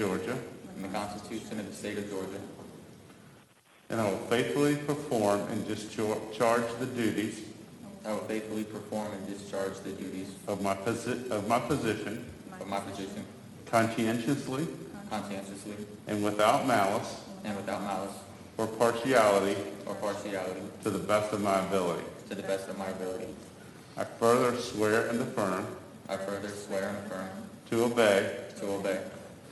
Georgia, and the Constitution of the State of Georgia, and I will faithfully perform and discharge the duties that I will faithfully perform and discharge the duties of my posi- of my position of my position conscientiously conscientiously and without malice and without malice or partiality or partiality to the best of my ability. to the best of my ability. I further swear and affirm I further swear and affirm to obey, to obey,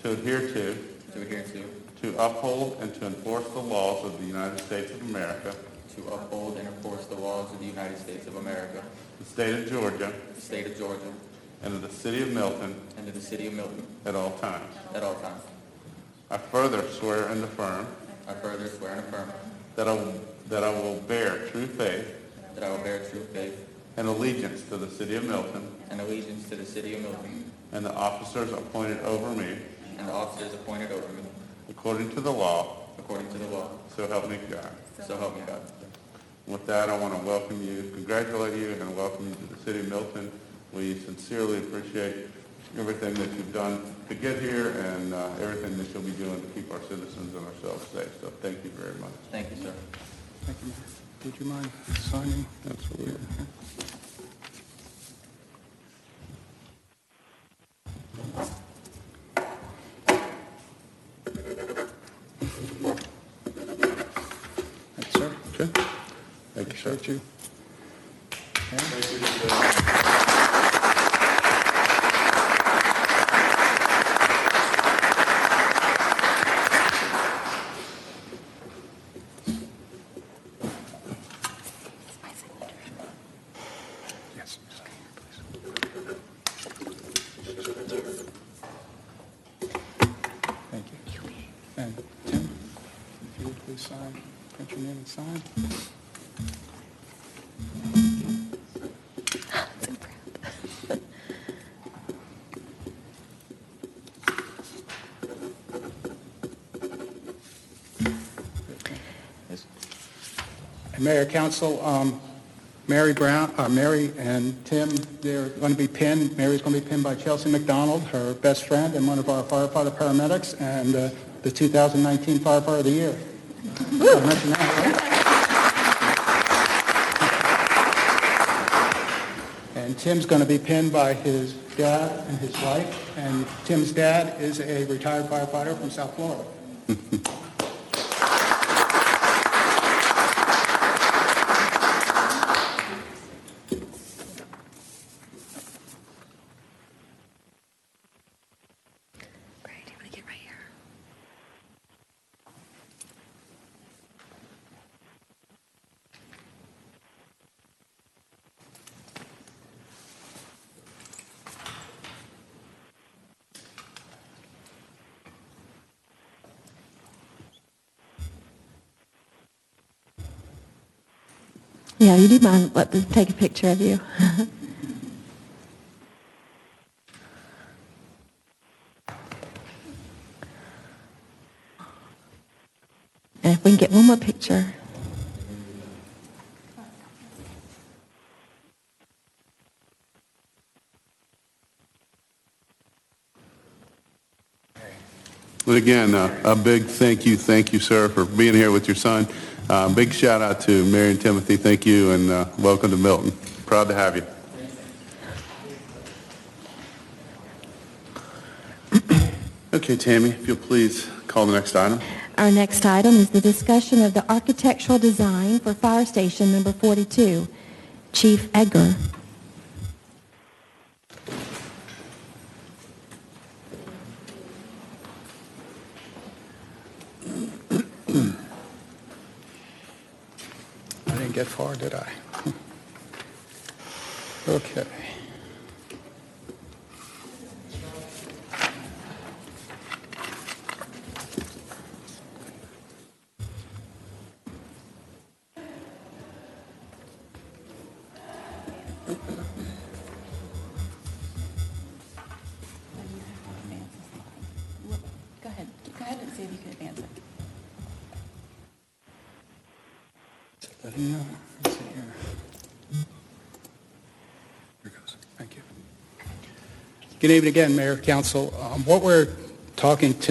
to adhere to, to adhere to, to uphold, and to enforce the laws of the United States of America, to uphold and enforce the laws of the United States of America, the state of Georgia, the state of Georgia, and of the city of Milton and to the city of Milton at all times. at all times. I further swear and affirm I further swear and affirm that I, that I will bear true faith that I will bear true faith and allegiance to the city of Milton and allegiance to the city of Milton and the officers appointed over me and the officers appointed over me according to the law, according to the law. so help me God. So help me God. With that, I want to welcome you, congratulate you, and welcome you to the city of Milton. We sincerely appreciate everything that you've done to get here and uh, everything that you'll be doing to keep our citizens and ourselves safe. So thank you very much. Thank you, sir. Thank you, Mayor. Would you mind signing? Absolutely. Thanks, sir. Okay. Thank you, sir. Appreciate you. Okay. Yes. Thank you. And Tim, if you would please sign, print your name and sign. And Mayor, Council, um, Mary Brown, uh, Mary and Tim, they're going to be pinned. Mary's going to be pinned by Chelsea McDonald, her best friend and one of our firefighter paramedics, and uh, the 2019 firefighter of the year. I mentioned that, right? And Tim's going to be pinned by his dad and his wife, and Tim's dad is a retired firefighter from South Florida. Right, I'm gonna get right here. Yeah, you do mind let them take a picture of you. And if we can get one more picture. But again, uh, a big thank you, thank you, sir, for being here with your son. Uh, Big shout out to Mary and Timothy, thank you, and uh, welcome to Milton. Proud to have you. Okay, Tammy, if you'll please call the next item. Our next item is the discussion of the architectural design for Fire Station Number 42. Chief Edgar. I didn't get far, did I? Okay. Go ahead, go ahead and see if you can advance it. Yeah, let's see here. Here goes. Thank you. Good evening again, Mayor, Council. Um, What we're talking tonight